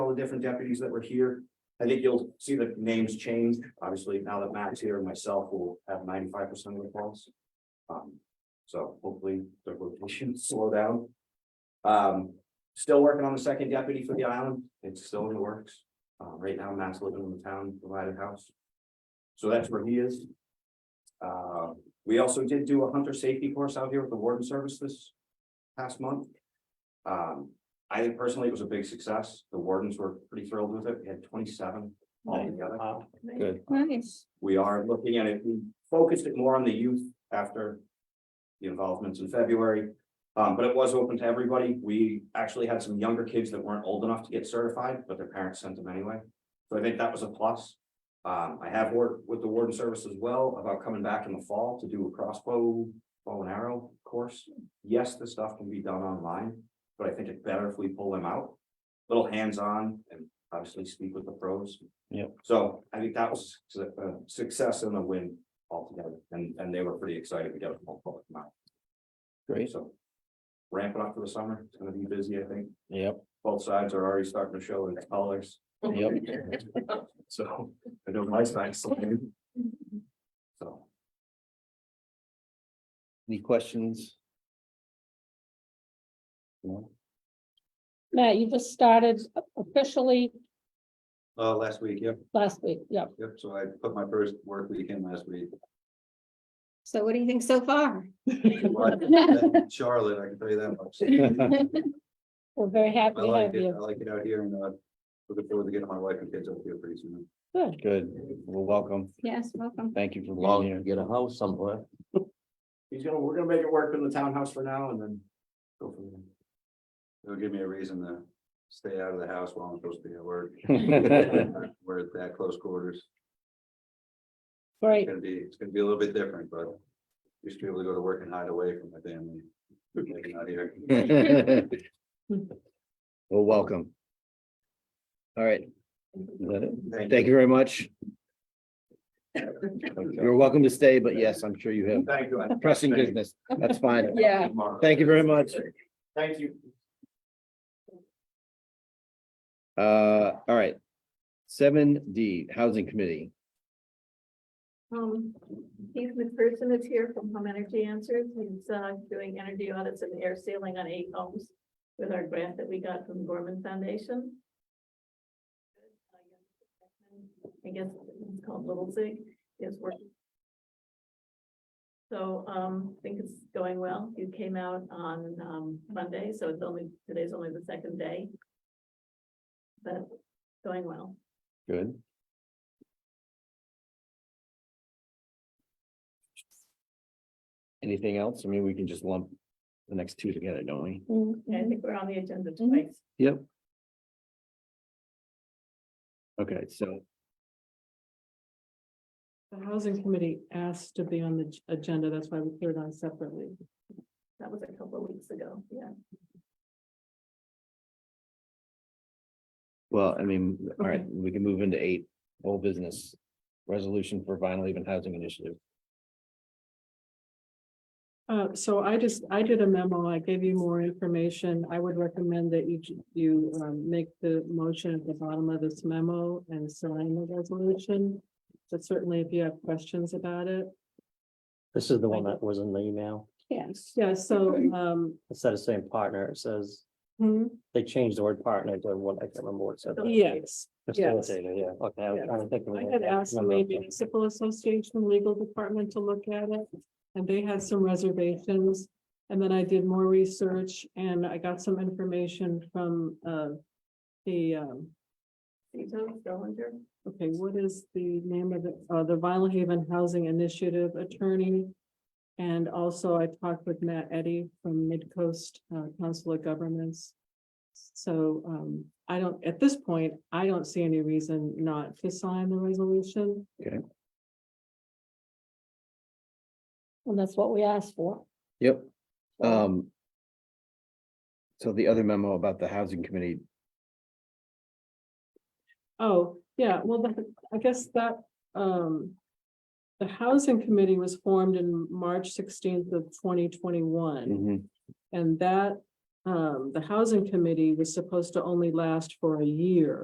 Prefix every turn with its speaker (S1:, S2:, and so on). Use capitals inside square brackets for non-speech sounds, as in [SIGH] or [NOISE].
S1: all the different deputies that were here. I think you'll see the names change. Obviously, now that Matt's here and myself will have ninety-five percent of the calls. Um, so hopefully the rotation [LAUGHS] slow down. Um, still working on the second deputy for the island. It's still in the works. Uh, right now, Matt's living in the town provided house. So that's where he is. Uh, we also did do a hunter safety course out here with the warden service this past month. Um, I think personally it was a big success. The wardens were pretty thrilled with it. We had twenty-seven altogether.
S2: Good.
S3: Nice.
S1: We are looking at it, we focused it more on the youth after. The involvements in February, um, but it was open to everybody. We actually had some younger kids that weren't old enough to get certified, but their parents sent them anyway. So I think that was a plus. Um, I have worked with the warden service as well about coming back in the fall to do a crossbow, bow and arrow course. Yes, the stuff can be done online, but I think it's better if we pull them out. Little hands-on and obviously speak with the pros. So I think that was su- a success and a win altogether, and, and they were pretty excited to get a phone call from out,
S2: Great,
S1: so. Ramp it up for the summer, it's gonna be busy, I think,
S2: yep,
S1: both sides are already starting to show its colors,
S2: yep,
S1: so I know my side's looking. So,
S2: any questions? No?
S3: Matt, you just started officially
S4: Uh, last week, yep,
S3: last week, yep.
S4: yep, so I put my first work week in last
S1: [LAUGHS]
S4: week.
S5: So what do you think so far?
S4: Charlotte, I can tell you that
S1: [LAUGHS]
S4: much.
S3: We're very happy
S4: I
S3: to
S4: like
S3: have
S4: it, I
S3: you.
S4: like it out here and, uh, looking forward to getting my wife and kids up here pretty soon.
S3: Good.
S2: Good, well, welcome,
S5: Yes, welcome.
S2: thank you for
S6: Long,
S2: being here.
S6: get a house somewhere.
S1: he's gonna, we're gonna make it work in the townhouse for now and then. Go from there.
S4: It'll give me a reason to stay out of the house while I'm supposed to be at
S2: [LAUGHS]
S4: work. We're at that close quarters,
S3: Great.
S4: it's gonna be, it's gonna be a little bit different, but you should be able to go to work and hide away from my family. Like, not here.
S2: [LAUGHS] Well, welcome. All right. Is that it?
S4: Thank
S2: Thank you very much. You're welcome to stay, but yes, I'm sure you have
S1: Thank you. I-
S2: pressing
S1: Thank you.
S2: business,
S1: [LAUGHS]
S2: that's fine,
S3: Yeah.
S2: thank you very much.
S1: Thank you.
S2: Uh, all right. Seven D, Housing Committee.
S7: Um, he's the person that's here from Home Energy Answers. He's uh doing energy audits and air sealing on eight homes with our grant that we got from Gorman Foundation. I guess it's called Little Zig is working. So um, I think it's going well. You came out on um Monday, so it's only, today's only the second day. But going well.
S2: Good. Anything else? I mean, we can just lump the next two together, don't we?
S7: Yeah, I
S3: Mhm.
S7: think we're on the agenda
S3: Mhm.
S7: twice.
S2: Yep. Okay, so,
S8: The housing committee asked to be on the ag- agenda, that's why we put it on separately.
S7: That was a couple of weeks ago, yeah.
S2: well, I mean, all right,
S8: Okay.
S2: we can move into eight, whole business. Resolution for vinyl even housing initiative.
S8: Uh, so I just, I did a memo, I gave you more information, I would recommend that you, you, um, make the motion at the bottom of this memo and sign the resolution. But certainly if you have questions about it,
S6: This is the one that was in the email.
S3: Yes.
S8: yeah, so, um,
S6: Instead of saying partner, it says,
S8: hmm,
S6: they changed the word partner to what, I can't remember what it said.
S8: yes.
S6: Facilitator, yeah, okay, I was
S8: Yes.
S6: trying to think of.
S8: I
S6: it.
S8: had asked the
S6: Remember.
S8: Maine Municipal Association Legal Department to look at it, and they had some reservations. And then I did more research and I got some information from, uh, the, um,
S7: Tito Dillinger.
S8: okay, what is the name of the, uh, the Vinyl Haven Housing Initiative attorney? And also I talked with Matt Eddy from Midcoast uh, Council of Governments. So, um, I don't, at this point, I don't see any reason not to sign the resolution.
S3: And that's what we asked for.
S2: Yep. Um. So the other memo about the housing committee,
S8: Oh, yeah, well, the- I guess that, um. The housing committee was formed in March sixteenth of twenty twenty-one,
S2: Mhm,
S8: and that, um, the housing committee was supposed to only last for a year.